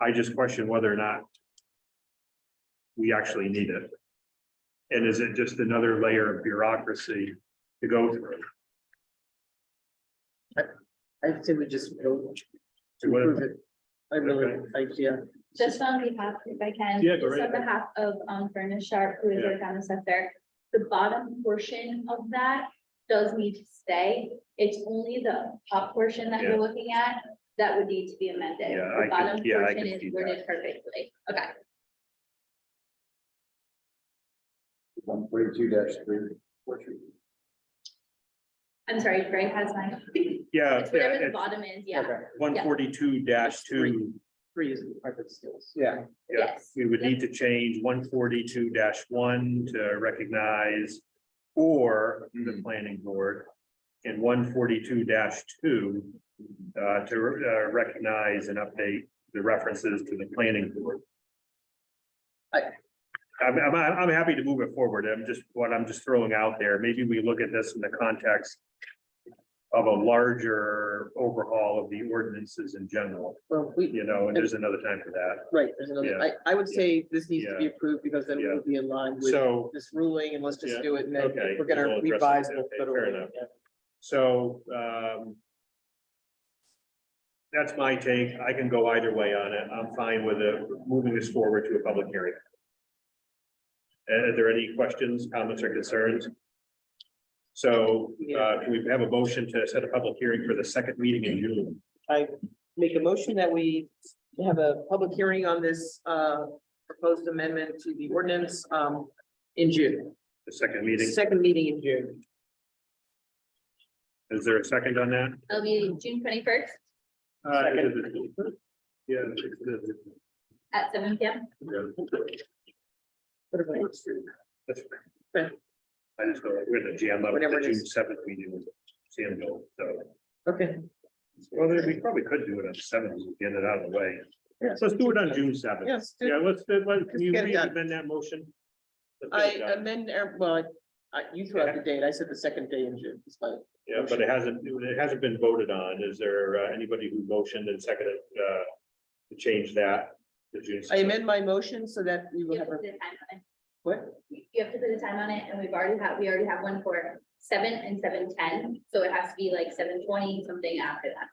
I just question whether or not. We actually need it. And is it just another layer of bureaucracy to go through? I'd say we just don't To what- approve it. I really, I, yeah, Just on behalf, if I can. Yeah, go just right On ahead. behalf of um Furnace Sharp, who is Yeah. our town assessor, the bottom portion of that does need to stay. It's only the top portion that Yeah. you're looking at that would need to be amended. Yeah, I The could- bottom yeah, I portion could is see that. worded perfectly. Okay, One forty-two dash three. I'm sorry, Greg has mine. Uh, Yeah, It's whatever the yeah, bottom is, yeah, okay, one forty-two two, three is private skills. Yeah. yeah, yes. we would need to change one forty-two one to recognize. Or the planning board and one forty-two two. Uh, to uh, recognize and update the references to the planning board. I, I- I'm, I'm, I'm happy to move it forward. I'm just, what I'm just throwing out there, maybe we look at this in the context. Of a larger overhaul of the ordinances in general, Well, we, you know, and there's another time for that. right, there's another, Yeah. I, I would say this needs to be approved because then Yeah. we'll be in line with So, this ruling and let's just Yeah. do it and then Okay. we're gonna We'll address it. revise. the Okay, federal fair ruling. enough. so, um. That's my take. I can go either way on it. I'm fine with it, moving this forward to a public hearing. Uh, Are there any questions, comments or concerns? So, uh, can we have a motion to set a public hearing for the second meeting in June? I make a motion that we have a public hearing on this uh proposed amendment to the ordinance um in June, The second meeting, second meeting in June. is there a second on that? It'll be June twenty-first Uh, Yeah. it's- it's- it's- at seven P M. yeah. What about it? That's fine. Yeah. I just go, we're gonna jam up Whatever the it June is. seventh meeting with Sam Gold, so. Okay, Well, then we probably could do it on seventh, get it out of the way. Yeah. So let's do it on June seventh. yes, Yeah, let's, do- let, can you get it done. amend that motion? Let's get it I done. amend, er, well, I, you threw out the date, I said the second day in June, it's fine. Yeah, but it hasn't, it hasn't been voted on. Is there uh, anybody who motioned and seconded, uh, to change that to June? I 7th? amend my motion so that we will You have have to a, put a time on it. what? you have to put a time on it, and we've already had, we already have one for seven and seven ten, so it has to be like seven twenty, something after that.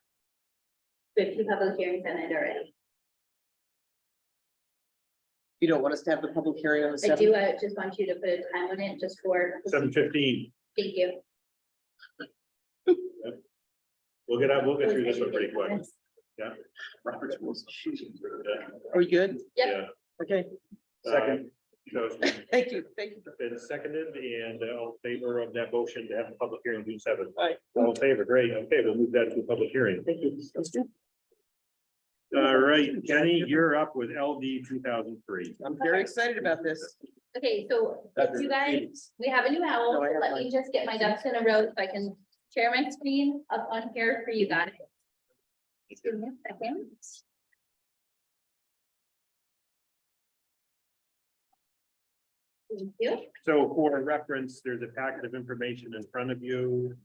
We have two public hearings on it already. You don't want us to have the public hearing on the I do, seventh? I just want you to put a time on it just for, Seven thank fifteen. you. We'll get out, we'll get through this one pretty quick. Robert's rules. Are we good? Yep. Yeah. Uh, Okay, Second. So it's been- thank you, thank you. been seconded and uh, all in favor of that motion to have a public hearing June seventh. All right, All in favor, great. Okay, we'll move that to a public hearing. thank you. That's good. All right, Jenny, you're up with LD two thousand three. I'm very excited about this. Okay, so you guys, we have a new owl, No, I have let mine. me just get my ducks in a row so I can share my screen up on here for you guys. Just Give me a second. Thank you. So for reference, there's a packet of information in front of you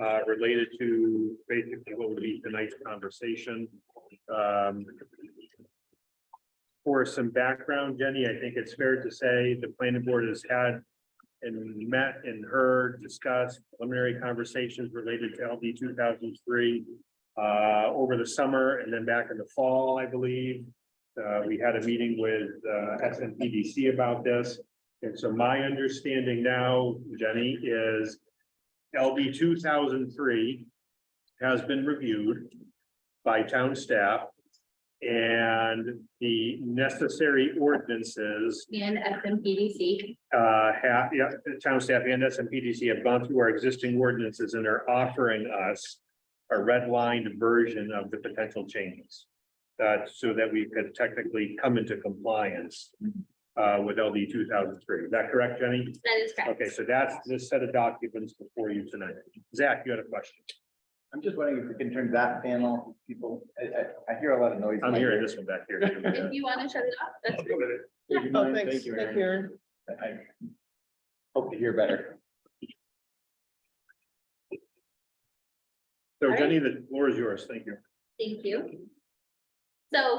uh, related to basically what would be tonight's conversation. Um, For some background, Jenny, I think it's fair to say the planning board has had and met and heard, discussed preliminary conversations related to LD two thousand three uh, over the summer and then back in the fall, I believe. Uh, We had a meeting with uh, S N P D C about this. And so my understanding now, Jenny, is LB two thousand three has been reviewed by town staff. And the necessary ordinances, And SMPDC, uh, have, yeah, the town staff and S M P D C have gone through our existing ordinances and are offering us a redlined version of the potential changes. Uh, so that we could technically come into compliance uh, with LD two thousand three. Is that correct, Jenny? that is correct. Okay, so that's the set of documents before you tonight. Zach, you had a question. I'm just wondering if we can turn that panel, people, I, I, I hear a lot of noise. I'm hearing this one back here. If you want to shut it off, that's, Would you Oh, mind? thanks, Thank you, thank you, Erin. Erin. I I Hope to hear better. So Jenny, the floor is yours. Thank you. thank you. So